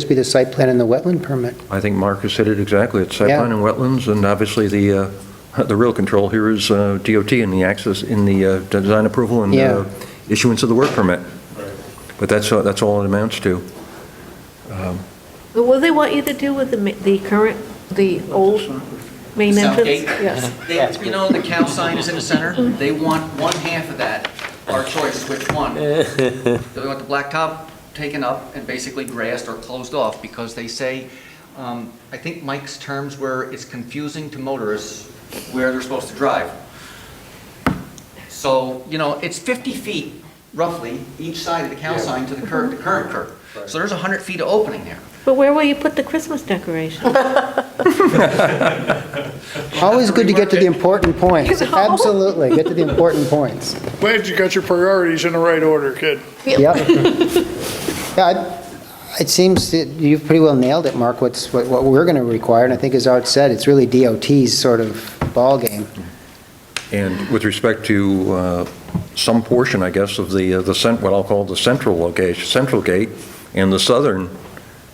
Just be the site plan and the wetland permit. I think Mark has said it exactly. It's site Yeah. plan and wetlands, and obviously the, uh, the real control here is uh, DOT and the access, in the uh, design approval and Yeah. uh, issuance of the work permit. But that's, uh, that's all it amounts to. But What do they want you to do with the, ma- the current, the old main The south entrance? gate? Yes. They- You know, the cow sign is in the center, they want one half of that, our choice is which one. Do they want the blacktop taken up and basically grassed or closed off? Because they say, um, I think Mike's terms were, it's confusing to motorists where they're supposed to drive. So, you know, it's 50 feet roughly, each side of the cow sign to the curb, the current curb. So there's 100 feet of opening there. But where will you put the Christmas decorations? Always good to get to the important points. You know? Absolutely, get to the important points. Glad you got your priorities in the right order, kid. Yep. Yeah, I- it seems that you've pretty well nailed it, Mark, what's, what what we're going to require, and I think as Art said, it's really DOT's sort of ballgame. And with respect to uh, some portion, I guess, of the, uh, the cent, what I'll call the central location, central gate, and the southern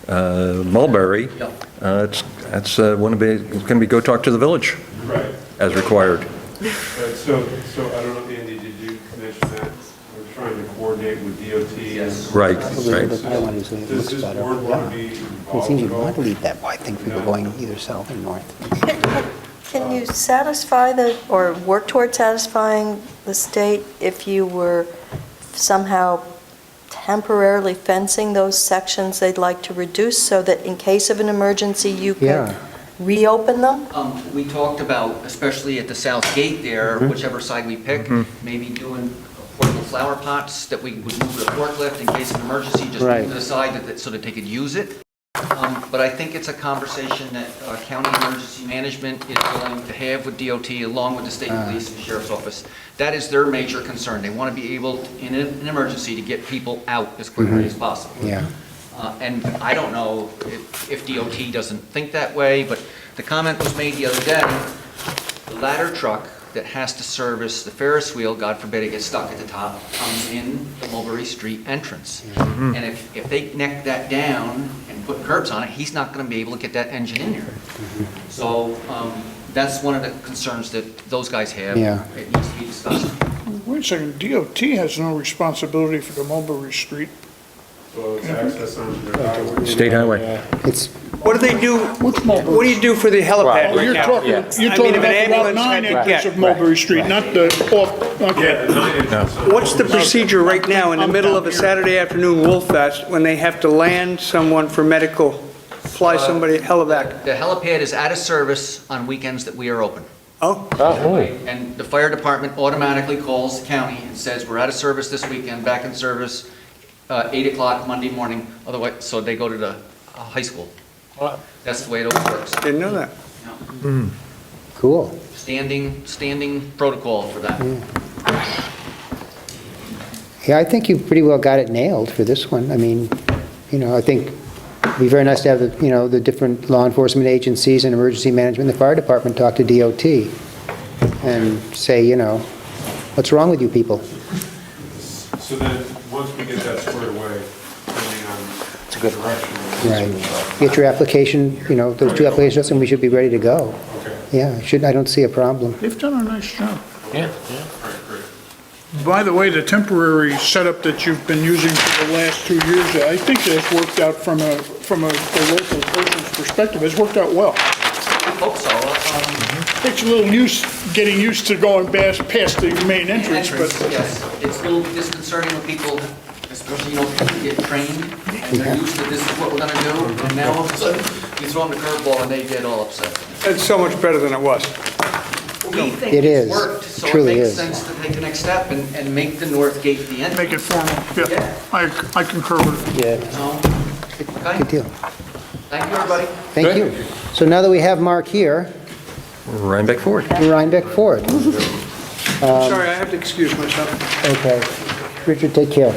uh, Mulberry, Yep. uh, it's, that's, uh, one of the- it's going to be go talk to the village Right, as required. but so, so I don't know, Andy, did you mention that we're trying to coordinate with DOT? and- Right, Probably right. the other one is when it Does looks this better. board want to Yeah. be It involved seems at you'd want to all? leave that wide thing for people going either south or north. Can you satisfy the, or work toward satisfying the state if you were somehow temporarily fencing those sections they'd like to reduce so that in case of an emergency, you Yeah. could reopen them? Um, We talked about, especially at the south gate there, whichever side we pick, maybe doing portable flower pots that we would move with a forklift in case of emergency, just Right. move to the side that- that- so that they could use it. Um, But I think it's a conversation that uh, county emergency management is willing to have with DOT along with the state police and sheriff's office. That is their major concern. They want to be able, in an an emergency, to get people out as quickly as possible. Yeah. Uh, And I don't know if if DOT doesn't think that way, but the comment was made the other day, the ladder truck that has to service the Ferris wheel, God forbid it gets stuck at the top, comes in the Mulberry Street entrance. Mm-hmm. And if, if they neck that down and put curbs on it, he's not going to be able to get that engine in there. Mm-hmm. So um, that's one of the concerns that those guys have. Yeah. It needs to be discussed. Wait a second, DOT has no responsibility for the Mulberry Street. Well, it's access on their highway. State highway. It's, What do they do, what do you do for the helipad Oh, right you're now? talking, I mean, you're if talking an about ambulance the nine had to acres get- of Mulberry Street, not the, off, okay. Yeah, the nine inches. on- What's the procedure right now in the middle of a Saturday afternoon Wolf Fest when they have to land someone for medical, fly somebody helivac? The helipad is out of service on weekends that we are open. Oh, And the fire department automatically calls the county and says, we're out of service this weekend, back in service, uh, 8 o'clock Monday morning, otherwise, so they go to the uh, high school. That's the way it always works. didn't know that. cool. Standing, standing protocol for that. Hmm. Yeah, I think you pretty well got it nailed for this one. I mean, you know, I think it'd be very nice to have, the you know, the different law enforcement agencies and emergency management, and the fire department talk to DOT and say, you know, what's wrong with you people? So then, once we get that squared away, depending on direction. Get your application, you know, those two applications, and we should be ready to go. Okay, Yeah, should, I don't see a problem. They've done a nice job. all right, great. By the way, the temporary setup that you've been using for the last two years, I think that's worked out from a, from a a local person's perspective, it's worked out well. Hope so. um, Takes a little use, getting used to going past, past the main entrance, Entrance, but yes. It's a little disconcerting when people, especially, you know, people get trained and they're used to this is what we're going to do. And now all of a sudden, you throw them the curveball and they get all upset. That's so much better than it was. We think It is. it's worked, so It it truly makes is. sense to take the next step and, and make the north gate the end. make it formal, yeah. I, I concur with it. So, Good Okay, deal. thank you, everybody. Thank you. So now that we have Mark here, Rhinebeck Ford. Rhinebeck Ford. Sorry, I have to excuse myself. Okay. Richard, take care.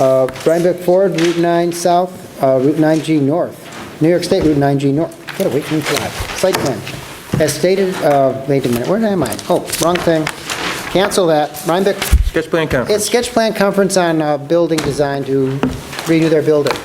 Uh, Rhinebeck Ford, Route 9 South, uh, Route 9G North, New York State Route 9G North. Gotta wait for me to drive. Site plan. As stated, uh, wait a minute, where am I? Oh, wrong thing. Cancel that. eh, Rhinebeck, Sketch plan conference. it's sketch plan conference on uh, building design to redo their building.